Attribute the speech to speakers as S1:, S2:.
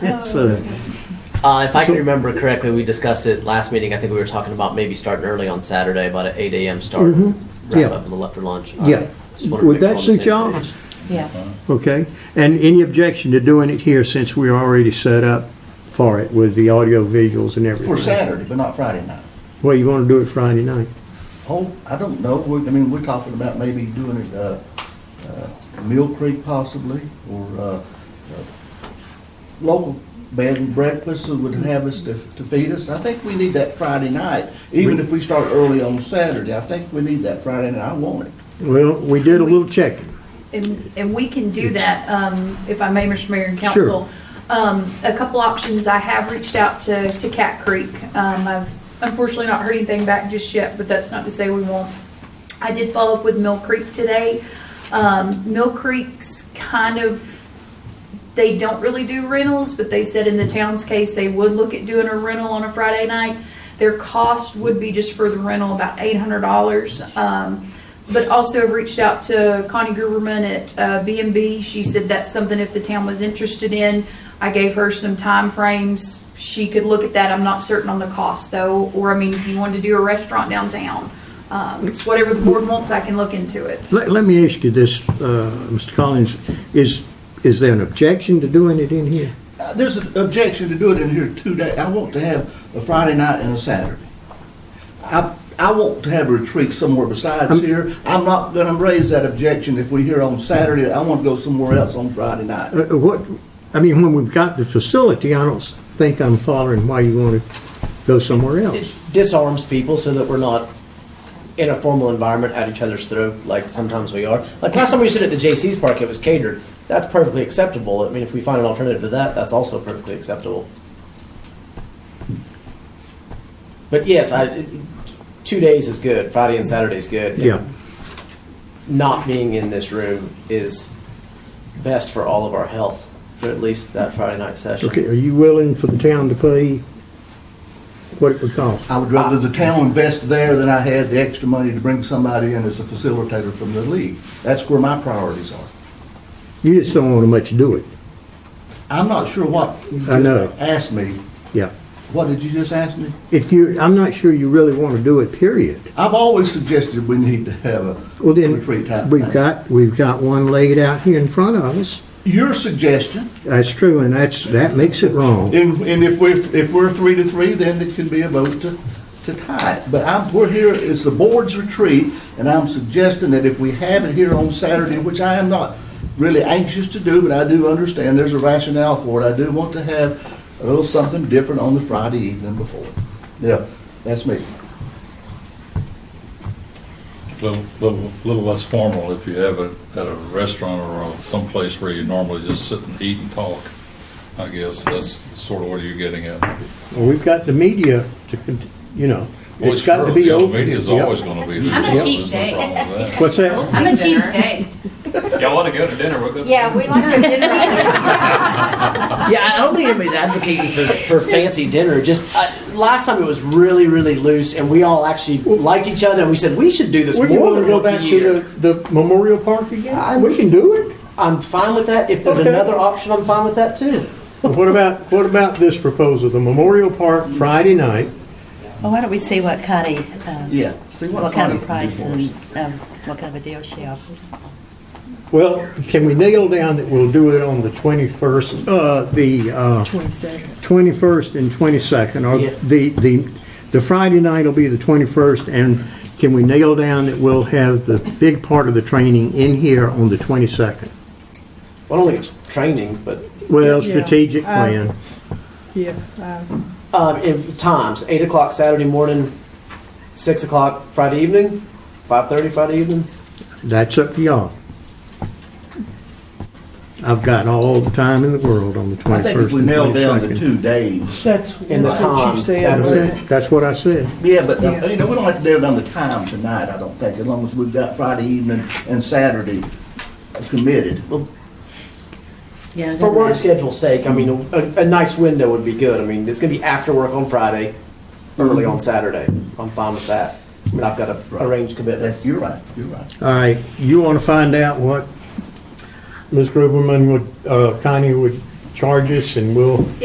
S1: It's a,
S2: Uh, if I can
S1: So-
S2: remember correctly, we discussed it last meeting. I think we were talking about maybe starting early on Saturday, about an 8 a.m. start,
S1: Mhm.
S2: wrap
S1: Yeah.
S2: up a little after lunch.
S1: Yeah.
S2: Uh, just wanted to make sure
S1: Would
S2: we're
S1: that
S2: on the
S1: suit
S2: same
S1: y'all?
S2: page.
S3: Yeah,
S1: okay? And any objection to doing it here since we're already set up for it with the audio visuals and everything?
S4: For Saturday, but not Friday night.
S1: Well, you want to do it Friday night?
S4: Oh, I don't know, we, I mean, we're talking about maybe doing it, uh, uh, Mill Creek possibly, or, uh, uh, local bed and breakfast that would have us to, to feed us. I think we need that Friday night, even if we start early on Saturday, I think we need that Friday night, I want it.
S1: Well, we did a little checking.
S3: and, and we can do that, um, if I may, Mr. Mayor and
S1: Sure.
S3: Council. Um, a couple options, I have reached out to, to Cat Creek. Um, I've unfortunately not heard anything back just yet, but that's not to say we won't. I did follow up with Mill Creek today. Um, Mill Creek's kind of they don't really do rentals, but they said in the town's case, they would look at doing a rental on a Friday night. Their cost would be just for the rental, about eight hundred dollars. Um, but also I've reached out to Connie Gruberman at uh, B and B. She said that's something if the town was interested in. I gave her some timeframes. She could look at that. I'm not certain on the cost though, or I mean, if you wanted to do a restaurant downtown, um, it's whatever the board wants, I can look into it.
S1: Let, let me ask you this, uh, Mr. Collins, is, is there an objection to doing it in here?
S4: Uh, There's an objection to doing it in here two days. I want to have a Friday night and a Saturday. I, I want to have a retreat somewhere besides
S1: Um,
S4: here. I'm not gonna raise that objection if we're here on Saturday. I want to go somewhere else on Friday night.
S1: Uh, What, I mean, when we've got the facility, I don't think I'm following why you want to go somewhere else.
S5: It disarms people so that we're not in a formal environment at each other's throat like sometimes we are. Like last time we stood at the JC's park, it was catered. That's perfectly acceptable. I mean, if we find an alternative to that, that's also perfectly acceptable. But yes, I, it- two days is good. Friday and Saturday is good.
S1: Yeah,
S5: Not being in this room is best for all of our health for at least that Friday night session.
S1: okay, are you willing for the town to pay what it would cost?
S4: I would rather the town invest there than I had the extra money to bring somebody in as a facilitator from the league. That's where my priorities are.
S1: You just don't want to much do it,
S4: I'm not sure what you
S1: I know.
S4: just asked me.
S1: yeah.
S4: What did you just ask me?
S1: If you, I'm not sure you really want to do it, period.
S4: I've always suggested we need to have a
S1: Well, then,
S4: retreat type
S1: we've
S4: thing.
S1: got, we've got one laid out here in front of us.
S4: Your suggestion
S1: That's true, and that's, that makes it wrong.
S4: And, and if we're, if we're three to three, then it can be a vote to, to tie it. But I'm, we're here, it's the board's retreat, and I'm suggesting that if we have it here on Saturday, which I am not really anxious to do, but I do understand there's a rationale for it, I do want to have a little something different on the Friday evening before. Yeah, that's me.
S6: little, little, little less formal if you have it at a restaurant or someplace where you normally just sit and eat and talk. I guess that's sort of what you're getting at.
S1: Well, we've got the media to, con- you know,
S6: Well,
S1: it's got to
S6: sure,
S1: be
S6: yeah,
S1: open.
S6: Media's
S1: Yep.
S6: always gonna be there.
S7: I'm a
S6: so
S7: cheap
S6: there's no problem with that.
S1: What's that?
S7: I'm a cheap date.
S8: Y'all want to go to dinner? We'll go.
S9: Yeah, we like the dinner.
S5: Yeah, I don't think anybody's advocating for, for fancy dinner. Just uh, last time it was really, really loose, and we all actually liked each other, and we said we should do this
S1: Well, you
S5: more
S1: want to
S5: than
S1: go
S5: once
S1: back
S5: a year.
S1: to the, the Memorial Park
S5: I-
S1: again? We can do it.
S5: I'm fine with that. If there's
S1: Okay.
S5: another option, I'm fine with that too.
S1: But What about, what about this proposal, the Memorial Park Friday night?
S10: Well, why don't we see what kind of, um,
S4: Yeah. See
S10: what kind of
S4: Connie can do
S10: price
S4: for us.
S10: and um, what kind of a deal she offers?
S1: Well, can we nail down that we'll do it on the 21st, uh, the, uh, 21st and 22nd, or
S5: Yeah.
S1: the, the, the Friday night will be the 21st, and can we nail down that we'll have the big part of the training in here on the 22nd?
S5: I don't think it's training, but
S1: Well,
S11: Yeah.
S1: strategic
S11: Uh,
S1: plan,
S11: Yes, I-
S5: um, in times eight o'clock Saturday morning, six o'clock Friday evening, five thirty Friday evening.
S1: that's up to y'all. I've got all the time in the world on the 21st
S4: I
S1: and 22nd.
S4: think if we nail down the two days.
S11: that's
S5: In the
S11: that's what
S5: time,
S11: you said.
S5: that's
S11: wasn't
S1: Okay,
S11: it?
S1: That's what I said.
S4: Yeah, but, uh,
S11: Yeah.
S4: you know, we don't have to nail down the time tonight, I don't think, as long as we've got Friday evening and Saturday committed.
S10: Yeah.
S5: For work schedule's sake, I mean, a, a nice window would be good. I mean, it's gonna be after work on Friday, early on Saturday. I'm fine with that. I mean, I've got to arrange commitments.
S4: That's, you're right, you're right.
S1: All right, you want to find out what Ms. Gruberman would, uh, Connie would charge us and we'll